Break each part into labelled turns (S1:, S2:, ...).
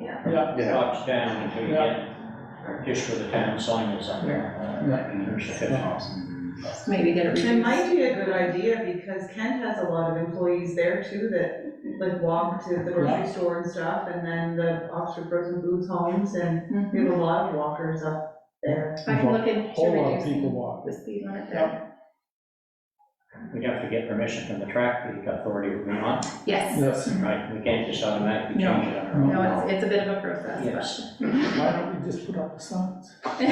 S1: Yeah.
S2: Watch down until you
S1: Yeah.
S2: get, just for the town sign is on there. uh,
S1: Yeah.
S2: and There's the fifth house.
S3: maybe get it reduced.
S4: It might be a good idea, because Kent has a lot of employees there too, that like walk to the
S1: Yeah.
S4: grocery store and stuff, and then the Oxford Frozen Foods homes, and we
S3: Mm-hmm.
S4: have a lot of walkers up there.
S3: I can look into
S1: Whole lot of people
S3: reducing
S1: walk.
S3: the speed limit there.
S2: We have to get permission from the traffic authority of Vermont,
S3: Yes,
S1: Yes,
S2: right? We can't just automatically
S3: No.
S2: change it on our own.
S3: no, it's, it's a bit of a process, but.
S2: Yes.
S1: why don't we just put up the signs?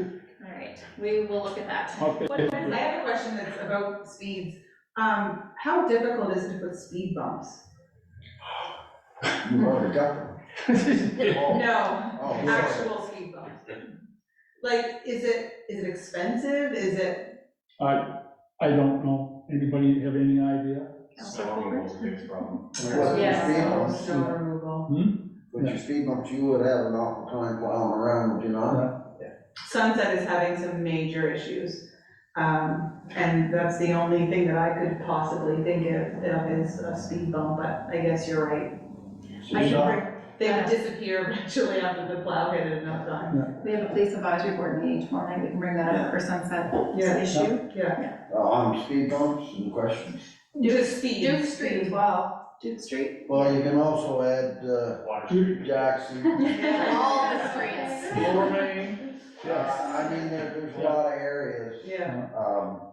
S3: All right, we will look at that.
S1: Okay.
S4: I have a question that's about speeds. Um, how difficult is it to put speed bumps?
S5: You already got them. Oh,
S4: No,
S5: oh, sorry.
S4: actual speed bumps. Like, is it, is it expensive? Is it,
S1: I, I don't know. Anybody have any idea?
S3: Counselor
S6: Snow removal's a
S3: Hobart?
S6: big problem.
S5: With your
S3: Yes.
S5: speed
S4: no,
S5: bumps,
S4: snow removal?
S5: with your speed bumps, you would have an awful time plowing around, would you not?
S4: Sunset is having some major issues. Um, and that's the only thing that I could possibly think of, of is a speed bump, but I guess you're right.
S3: I
S5: You
S3: should,
S5: know,
S3: bring-
S4: They would disappear eventually after the plow hit it enough time.
S3: we have a police advisory board meeting tomorrow night, we can bring that up for sunset issue.
S4: Yeah.
S5: uh, On speed bumps and questions.
S4: Just speed.
S3: Duke Street as well, Duke Street.
S5: Well, you can also add, uh,
S6: Water.
S5: Jackson.
S3: All the streets.
S1: Lower Main, yes.
S5: Uh, I mean, there, there's a lot of areas,
S4: Yeah,
S5: um,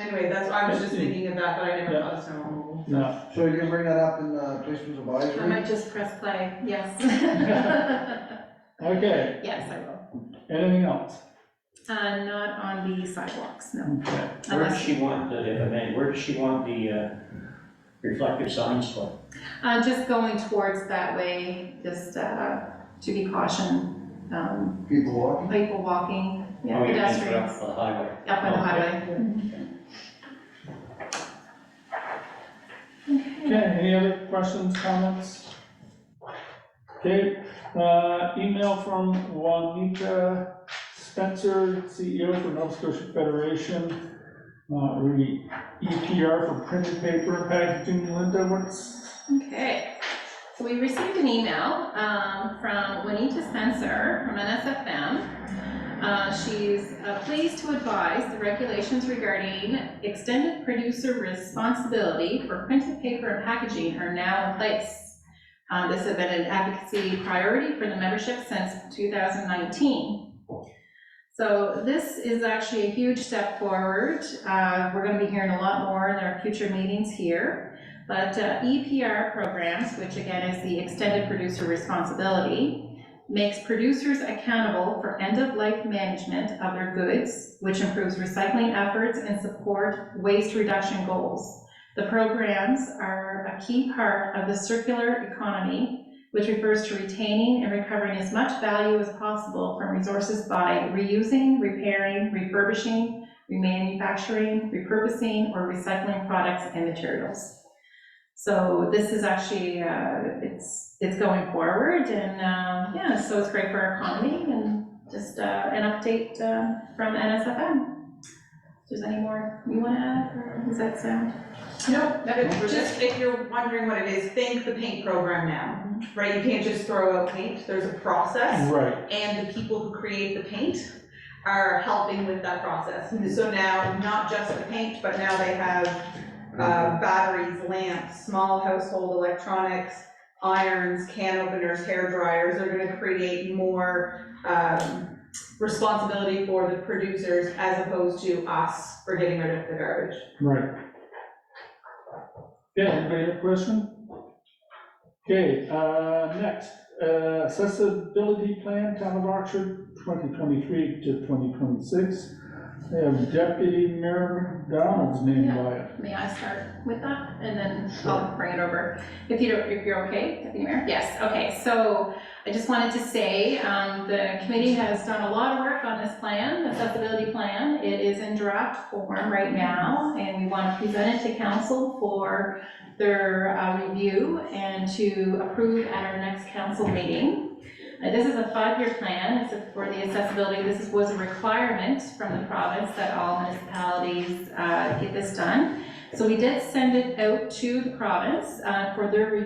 S4: anyway, that's, I was just thinking of that, but I never thought of snow removal.
S1: No,
S5: so you can bring that up in, uh, Christmas
S3: I
S5: advisory?
S3: might just press play, yes.
S1: okay,
S3: Yes, I will.
S1: anything else?
S3: Uh, not on the sidewalks, no.
S1: Okay.
S2: Where does she want, the- if I may, where does she want the uh, reflective signs for?
S3: Uh, just going towards that way, just, uh, to be caution, um,
S5: People walking?
S3: people walking, yeah,
S2: Oh, you mean for Oh,
S3: pedestrians,
S2: Up the highway.
S3: up on the highway.
S1: Okay, any other questions, comments? Okay, uh, email from Juanita Spencer, CEO for Nova Scotia Federation. Uh, re, EPR for printed paper and packaging, Linda, what's?
S3: Okay, so we received an email um, from Juanita Spencer from NSFM. Uh, She's uh, pleased to advise the regulations regarding extended producer responsibility for printed paper and packaging are now in place. Uh, This has been an advocacy priority for the membership since 2019. So this is actually a huge step forward. Uh, We're going to be hearing a lot more in our future meetings here. But uh, EPR programs, which again is the extended producer responsibility, makes producers accountable for end-of-life management of their goods, which improves recycling efforts and support waste reduction goals. The programs are a key part of the circular economy, which refers to retaining and recovering as much value as possible from resources by reusing, repairing, refurbishing, remanufacturing, repurposing, or recycling products and materials. So this is actually, uh, it's, it's going forward and, um, yeah, so it's great for our economy and just, uh, an update, uh, from NSFM. If there's any more you want to add or does that uh, sound?
S4: No, just if you're wondering what it is, think the paint program now, right? You can't just throw out paint, there's a process.
S1: Right.
S4: and the people who create the paint are helping with that process. So now, not just the paint, but now they have uh, batteries, lamps, small household electronics, irons, can openers, hair dryers. They're gonna create more um, responsibility for the producers as opposed to us for getting rid of the garbage.
S1: Right. Okay, anybody have a question? Okay, uh, next, uh, accessibility plan, town of Oxford, twenty twenty-three to twenty twenty-six. They have deputy mayor McDonald's name by it.
S3: May I start with that and then I'll bring it over? If you don't, if you're okay, Deputy Mayor? Yes, okay, so I just wanted to say, um, the committee has done a lot of work on this plan, accessibility plan. It is in draft form right now and we want to present it to council for their uh, review and to approve at our next council meeting. Uh, This is a five-year plan, it's for the accessibility, this is- was a requirement from the province that all municipalities uh, get this done. So we did send it out to the province uh, for their review.